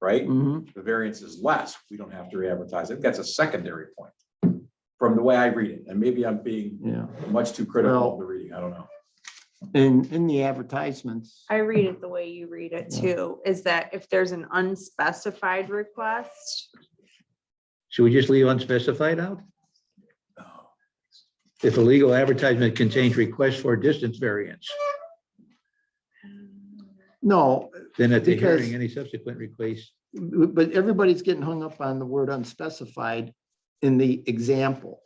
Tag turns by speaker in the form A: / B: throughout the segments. A: right?
B: Mhm.
A: The variance is less. We don't have to re-advertise. I think that's a secondary point from the way I read it. And maybe I'm being
B: Yeah,
A: much too critical
B: Well-
A: of the reading. I don't know.
B: and in the advertisements,
C: I read it the way you read it
B: Yeah.
C: too, is that if there's an unspecified request,
D: Should we just leave unspecified out? If a legal advertisement contains requests for distance variance,
B: no,
D: then at the
B: Because-
D: hearing, any subsequent request,
B: but everybody's getting hung up on the word unspecified in the example.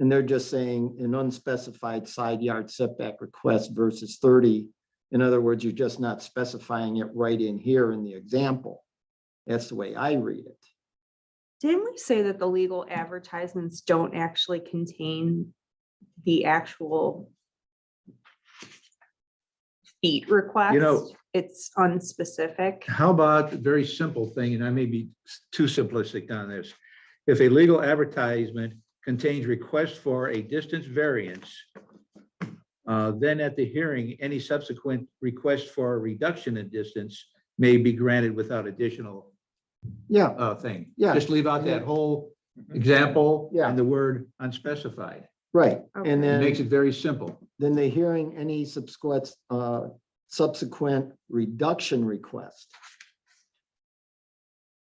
B: And they're just saying an unspecified side yard setback request versus thirty. In other words, you're just not specifying it right in here in the example. That's the way I read it.
C: didn't we say that the legal advertisements don't actually contain the actual feet request? It's unspecific.
D: how about a very simple thing, and I may be too simplistic on this. If a legal advertisement contains requests for a distance variance, uh, then at the hearing, any subsequent request for a reduction in distance may be granted without additional
B: Yeah,
D: uh, thing.
B: Yeah.
D: Just leave out that whole example
B: Yeah.
D: and the word unspecified.
B: right.
C: Okay.
B: And
D: It
B: then.
D: makes it very simple.
B: Then the hearing any subsequent, uh, subsequent reduction request.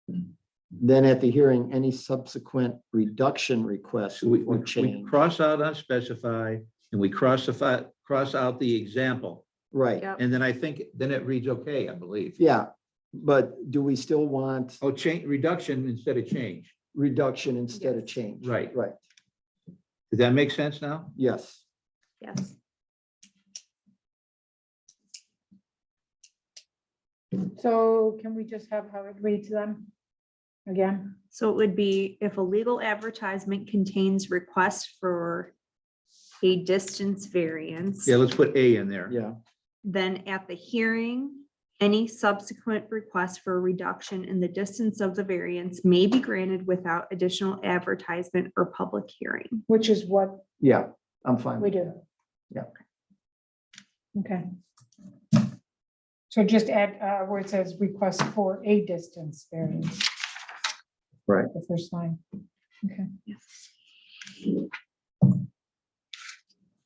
D: Hmm.
B: Then at the hearing, any subsequent reduction request
D: So we, we-
B: or
D: we
B: change,
D: cross out unspecified and we crossify, cross out the example.
B: right?
C: Yep.
D: And then I think, then it reads okay, I believe.
B: Yeah, but do we still want
D: Oh, change, reduction instead of change.
B: reduction instead of change?
D: Right.
B: Right,
D: Does that make sense now?
B: yes.
C: Yes.
E: So can we just have Howard read to them again?
C: So it would be if a legal advertisement contains requests for a distance variance.
D: Yeah, let's put A in there.
B: Yeah,
C: Then at the hearing, any subsequent request for a reduction in the distance of the variance may be granted without additional advertisement or public hearing.
E: Which is what
B: yeah, I'm fine.
E: we
B: with
E: do.
B: Yeah.
E: Okay. So just add uh, where it says request for a distance variance.
B: Right.
E: The first line. Okay.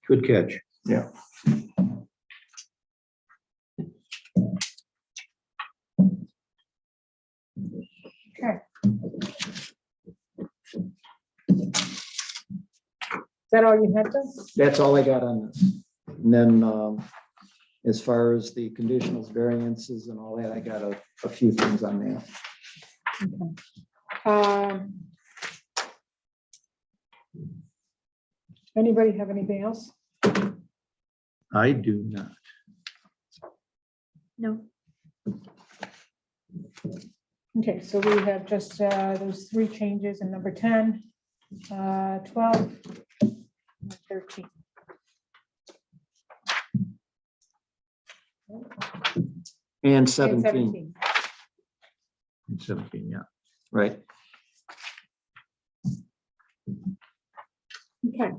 D: Good catch.
B: Yeah.
E: Okay. Is that all you had to?
B: That's all I got on this. And then, um, as far as the conditionals variances and all that, I got a, a few things on that.
E: Um, Anybody have anything else?
D: I do not.
C: No.
E: Okay, so we have just uh, those three changes in number 10, uh, 12, and 13.
B: And
E: and
B: seventeen.
D: It's Seventeen, yeah.
B: Right.
E: Okay.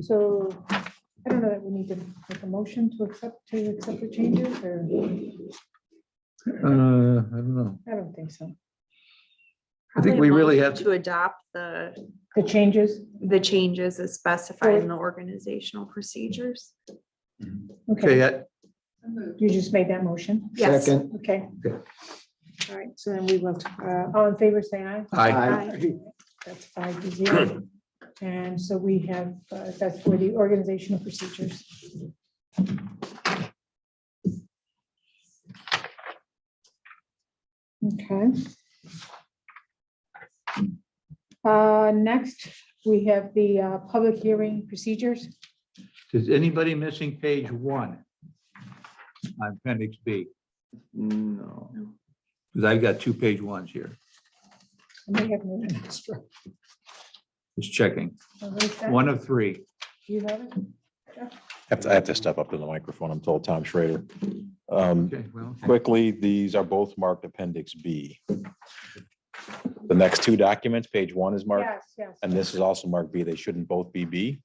E: So I don't know that we need to make a motion to accept, to accept the changes or,
D: Uh, I don't know.
E: I don't think so.
D: I think we really have-
C: To adopt the,
E: The changes?
C: the changes as specified in the organizational procedures.
E: Okay,
D: Okay, I-
E: you just made that motion.
C: Yes.
B: Second.
E: Okay.
D: Okay.
E: All right, so then we will, uh, all in favor, say aye.
D: I,
B: Aye.
E: That's five to zero. And so we have, uh, that's for the organizational procedures. Okay. Uh, Next, we have the uh, public hearing procedures.
D: is anybody missing page one? On appendix B,
B: No.
D: because I've got two page ones here.
E: I may have moved an extra.
D: Just checking.
E: Uh, what is that?
D: One of three.
E: Do you have it?
F: have to, I have to step up to the microphone. I'm told Tom Schrader. Um,
D: Okay, well.
F: Quickly, these are both marked Appendix B. The next two documents, page one is marked,
E: Yes, yes.
F: and this is also marked B. They shouldn't both be B.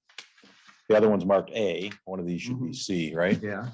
F: The other one's marked A. One of these should be C, right?
D: Yeah,